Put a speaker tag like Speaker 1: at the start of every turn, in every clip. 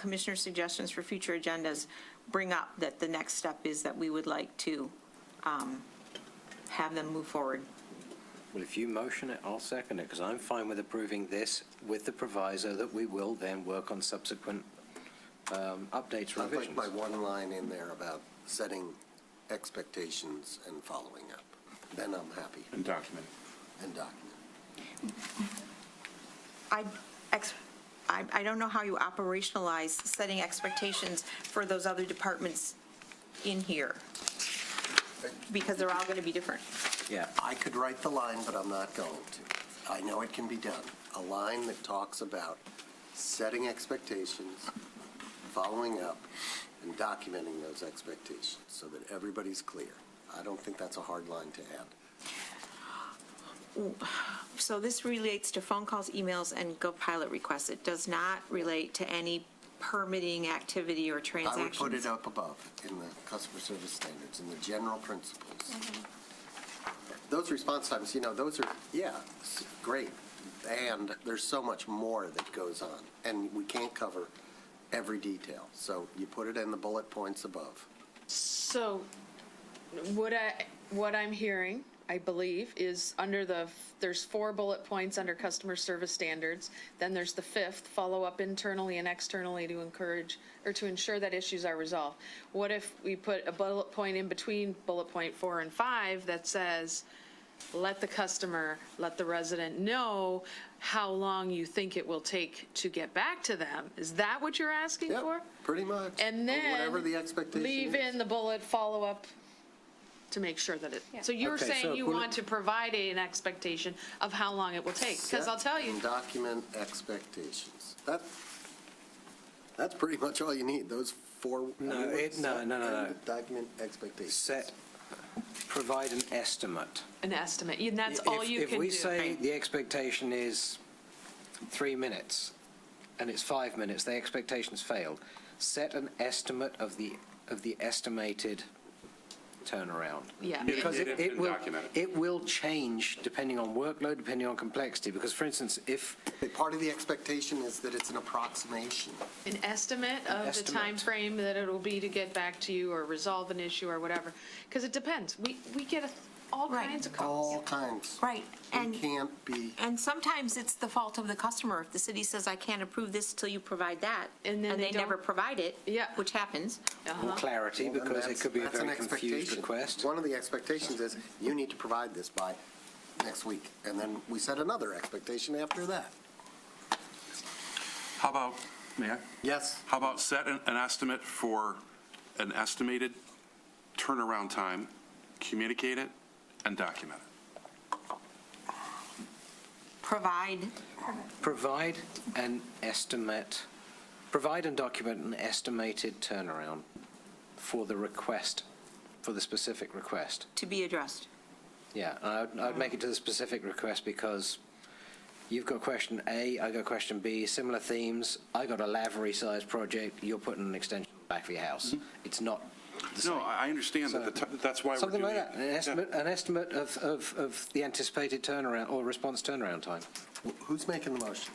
Speaker 1: commissioner suggestions for future agendas bring up that the next step is that we would like to um, have them move forward.
Speaker 2: Well, if you motion it, I'll second it, because I'm fine with approving this with the proviso that we will then work on subsequent um, updates
Speaker 3: I'd like
Speaker 2: revisions.
Speaker 3: my one line in there about setting expectations and following up. Then I'm happy
Speaker 4: and document.
Speaker 3: and document.
Speaker 1: I, ex- I I don't know how you operationalize setting expectations for those other departments in here, because they're all going to be different.
Speaker 2: Yeah,
Speaker 3: I could write the line, but I'm not going to. I know it can be done. A line that talks about setting expectations, following up, and documenting those expectations so that everybody's clear. I don't think that's a hard line to add.
Speaker 1: So this relates to phone calls, emails, and GovPilot requests. It does not relate to any permitting activity or
Speaker 3: I would
Speaker 1: transactions.
Speaker 3: put it up above in the customer service standards and the general principles.
Speaker 5: Mm-hmm.
Speaker 3: Those response times, you know, those are, yeah, s- great. And there's so much more that goes on, and we can't cover every detail. So you put it in the bullet points above.
Speaker 5: So, what I, what I'm hearing, I believe, is under the, there's four bullet points under customer service standards. Then there's the fifth, follow up internally and externally to encourage, or to ensure that issues are resolved. What if we put a bullet point in between bullet point four and five that says, let the customer, let the resident know how long you think it will take to get back to them? Is that what you're asking
Speaker 3: Yep,
Speaker 5: for?
Speaker 3: pretty much.
Speaker 5: And
Speaker 3: Or
Speaker 5: then.
Speaker 3: Whatever the expectation
Speaker 5: Leave
Speaker 3: is.
Speaker 5: in the bullet follow-up to make sure that it, so you're
Speaker 2: Okay, so
Speaker 5: saying you
Speaker 2: bullet-
Speaker 5: want to provide an expectation of how long it will take? Because I'll
Speaker 3: Set
Speaker 5: tell you,
Speaker 3: and Document expectations. That, that's pretty much all you need, those four. I
Speaker 2: No,
Speaker 3: mean,
Speaker 2: it-
Speaker 3: set
Speaker 2: no, no, no,
Speaker 3: and
Speaker 2: no.
Speaker 3: Document expectations.
Speaker 2: set, provide an estimate.
Speaker 5: an estimate, and that's all
Speaker 2: If-
Speaker 5: you can do.
Speaker 2: If we say the expectation is three minutes, and it's five minutes, the expectation's failed, set an estimate of the, of the estimated turnaround.
Speaker 5: Yeah.
Speaker 2: Because it,
Speaker 4: Indicative
Speaker 2: it
Speaker 4: and
Speaker 2: will,
Speaker 4: documented.
Speaker 2: it will change depending on workload, depending on complexity, because for instance, if,
Speaker 3: The Part of the expectation is that it's an approximation.
Speaker 5: An estimate of the
Speaker 2: estimate.
Speaker 5: time frame that it'll be to get back to you or resolve an issue or whatever. Because it depends. We, we get a- all
Speaker 1: Right.
Speaker 5: kinds of calls.
Speaker 3: All kinds.
Speaker 1: Right, and.
Speaker 3: We can't be,
Speaker 1: And sometimes it's the fault of the customer. If the city says, I can't approve this till you provide that, and
Speaker 5: And then
Speaker 1: they
Speaker 5: they
Speaker 1: never
Speaker 5: don't-
Speaker 1: provide it.
Speaker 5: Yeah.
Speaker 1: Which happens.
Speaker 2: more
Speaker 5: Uh-huh.
Speaker 2: clarity,
Speaker 3: Well, then
Speaker 2: because it
Speaker 3: that's-
Speaker 2: could be a
Speaker 3: that's an
Speaker 2: very confused
Speaker 3: expectation.
Speaker 2: request.
Speaker 3: One of the expectations is, you need to provide this by next week. And then we set another expectation after that.
Speaker 6: How about, Mayor,
Speaker 3: Yes,
Speaker 6: how about set an an estimate for an estimated turnaround time, communicate it, and document it?
Speaker 1: Provide,
Speaker 2: Provide an estimate, provide and document an estimated turnaround for the request, for the specific request.
Speaker 1: to be addressed.
Speaker 2: Yeah, and I'd, I'd make it to the specific request because you've got question A, I got question B, similar themes. I got a lavery sized project. You're putting an extension back for your house. It's not the same.
Speaker 6: No, I I understand that, the ti- that's why we're
Speaker 2: Something
Speaker 6: doing it.
Speaker 2: like that. An estimate, an estimate of, of, of the anticipated turnaround or response turnaround time.
Speaker 3: Wh- who's making the motion?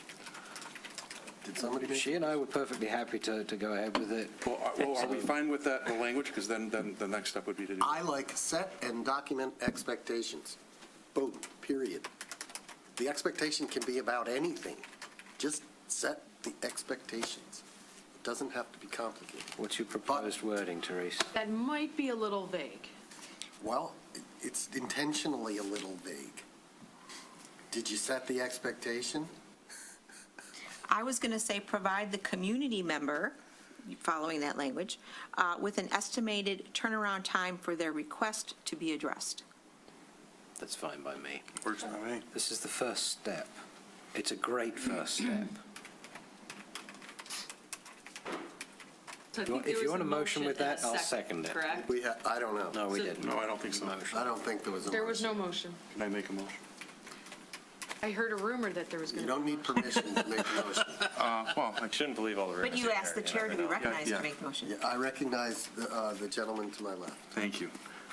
Speaker 3: Did somebody make?
Speaker 2: She and I were perfectly happy to, to go ahead with it.
Speaker 6: Well, are- well, are we fine with that, the language? Because then, then the next step would be to do.
Speaker 3: I like set and document expectations. Boom, period. The expectation can be about anything. Just set the expectations. It doesn't have to be complicated.
Speaker 2: What's your proposed wording, Therese?
Speaker 5: That might be a little vague.
Speaker 3: Well, it- it's intentionally a little vague. Did you set the expectation?
Speaker 1: I was going to say, provide the community member, following that language, uh, with an estimated turnaround time for their request to be addressed.
Speaker 2: That's fine by me.
Speaker 6: Works by me.
Speaker 2: This is the first step. It's a great first step.
Speaker 5: So I
Speaker 2: You want-
Speaker 5: think there
Speaker 2: if you
Speaker 5: was
Speaker 2: want a motion with
Speaker 5: and
Speaker 2: that,
Speaker 5: a
Speaker 2: I'll second it.
Speaker 5: Correct?
Speaker 3: We, ha- I don't know.
Speaker 2: No, we
Speaker 5: So-
Speaker 2: didn't.
Speaker 6: No, I don't think so.
Speaker 3: I don't think there was a.
Speaker 5: There was no
Speaker 3: motion.
Speaker 5: motion.
Speaker 6: Can I make a motion?
Speaker 5: I heard a rumor that there was
Speaker 3: You
Speaker 5: going to be.
Speaker 3: don't need permission to make a motion.
Speaker 6: Uh, Well, I-
Speaker 7: Shouldn't believe all the rumors.
Speaker 1: But you asked the chair to be recognized to
Speaker 6: yeah.
Speaker 1: make the motion.
Speaker 3: Yeah, I recognize the uh, the gentleman to my left.
Speaker 6: thank you.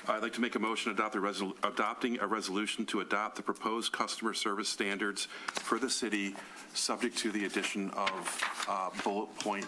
Speaker 6: I'd like to make a motion to adopt the resol- adopting a resolution to adopt the proposed customer service standards for the city, subject to the addition of uh, bullet point